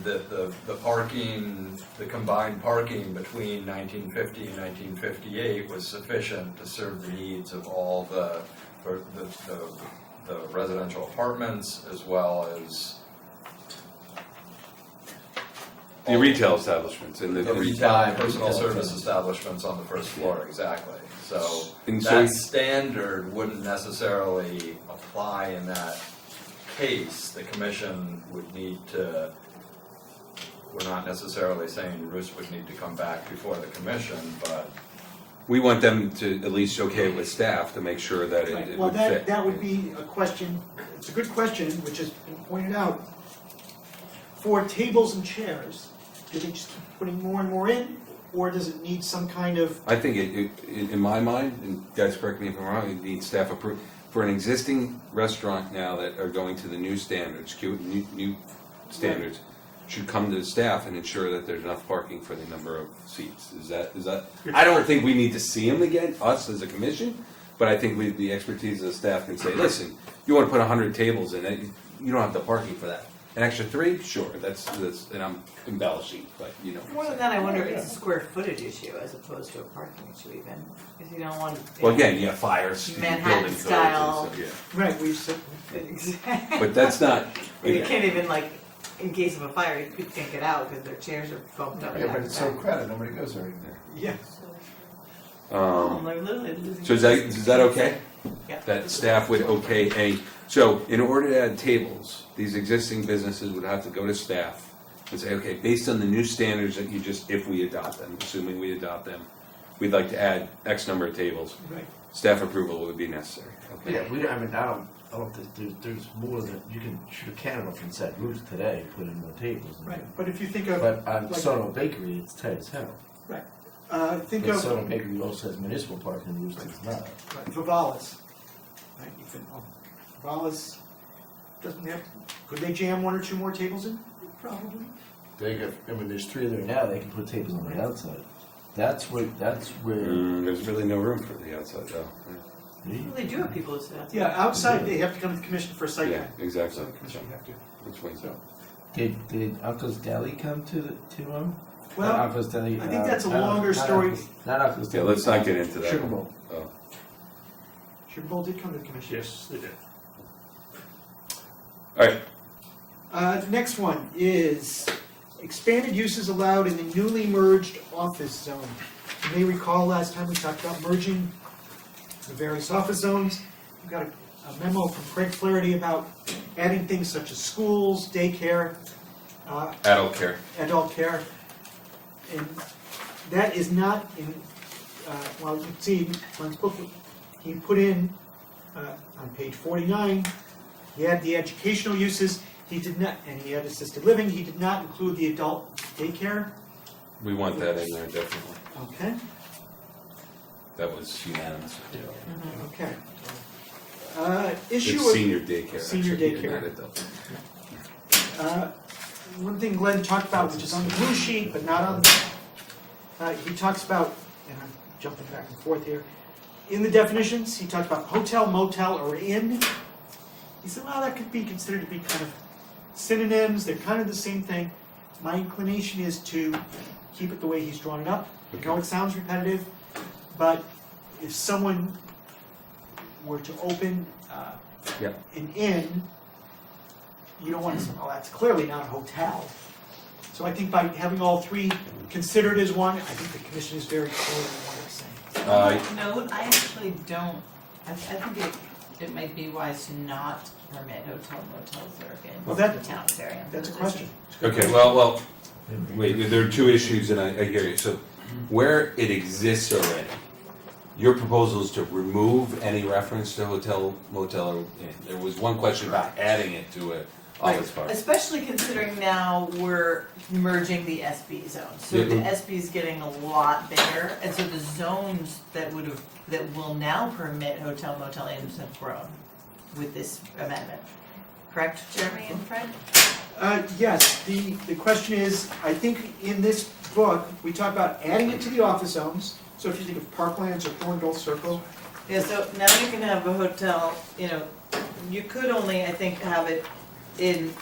the, the, the parking, the combined parking between nineteen fifty and nineteen fifty-eight was sufficient to serve the needs of all the, for the, the, the residential apartments as well as The retail establishments and the. the retail, personal service establishments on the first floor, exactly. So And so, that standard wouldn't necessarily apply in that case, the commission would need to, we're not necessarily saying Bruce would need to come back before the commission, but we want them to at least okay it with staff to make sure that it it Well, would fit. that, that would be a question, it's a good question, which has been pointed out. For tables and chairs, do they just keep putting more and more in, or does it need some kind of, I think it, it, in in my mind, and guys correct me if I'm wrong, it needs staff approval. For an existing restaurant now that are going to the new standards, Q, new, new standards, should come to the staff and ensure that there's enough parking for the number of seats. Is that, is that, I don't think we need to see them again, us as a commission, but I think we, the expertise of the staff can say, listen, you wanna put hundred tables in it, you don't have the parking for that. An extra three, sure, that's, that's, and I'm embellishing, but you know. what I'm More saying. than that, I wonder if it's a square footage issue as opposed to a parking issue even, because you don't want. Well, again, yeah, fires, building Manhattan codes and style. stuff, yeah. right, we've said, Exactly. But that's not, You can't even like, in case of a fire, you can't get out because their chairs are bumped up. Yeah, but back it's to so back. crowded, nobody goes there anymore. yeah, I'm um, like literally losing. so is that, is that okay? Yeah. That staff would okay a, so in order to add tables, these existing businesses would have to go to staff and say, okay, based on the new standards that you just, if we adopt them, assuming we adopt them, we'd like to add X number of tables, right. staff approval would be necessary, okay? Yeah, we, I mean, I don't, I don't think there's, there's more than, you can shoot a cannon off and set roofs today, and put in more tables. and- Right, but if you think of, But on Like- Sono Bakery, it's tight as hell. uh, think But of Sono Bakery also has municipal parking, roofs does not. right, Vivalas, right, you think, oh, Vivalas doesn't have, could they jam one or two more tables in? Probably. They got, I mean, there's three there now, they can put tables on the outside. That's where, that's where. Mm, there's really no room for the outside though. Mm. Well, they do have people who sit out. Yeah, outside, they have to come to the commission for a Oh, site Yeah, plan. So exactly. the commission would have to. Which way's up? Did, did Uncle's Deli come to, the to them? Well, Not Uncle's Deli. I think uh, that's a not Uncle- longer not story. Uncle's- Not Uncle's Yeah, Deli. let's not get into that. Sugar one. Bowl. Oh. Sugar Bowl did come to the commission. Yes, they did. All right, Uh, the next one is expanded uses allowed in the newly merged office zone. You may recall last time we talked about merging the various office zones. We got a- a memo from Craig Flaherty about adding things such as schools, daycare, uh, adult care. adult care. And that is not in, uh, well, you can see, Glenn's book, he put in, uh, on page forty-nine, he had the educational uses, he did not, and he had assisted living, he did not include the adult daycare, We want that in there definitely. okay, That was unanimous. okay. Uh, issue It's of. senior daycare. Senior actually, you're daycare. not adult. Uh, One thing Glenn talked about, which is on the blue sheet, but not on, uh, he talks about, and I'm jumping back and forth here, in the definitions, he talked about hotel, motel, or inn. He said, well, that could be considered to be kind of synonyms, they're kind of the same thing. My inclination is to keep it the way he's drawn it up. I know it sounds repetitive, but if someone were to open uh, Yeah. an inn, you don't want to say, oh, that's clearly not a hotel. So I think by having all three considered as one, I think the commission is very clear in what it's saying. Uh, No, I actually don't, I, I think it, it might be wise to not permit hotel motels that are in Well, that- the town area. That's a question. Okay, well, well, wait, there are two issues and I, I hear you. So where it exists already, your proposal is to remove any reference to hotel, motel, or inn. There was one question about adding it to a office Right, park. Especially considering now we're merging the SB zone, so the Mhm. SB is getting a lot bigger, and so the zones that would have, that will now permit hotel motel inns have grown with this amendment, correct, Jeremy and Fred? Uh, yes, the, the question is, I think in this book, we talk about adding it to the office zones. So if you think of Parklands or Thorndale Circle, Yeah, so now you can have a hotel, you know, you could only, I think, have it in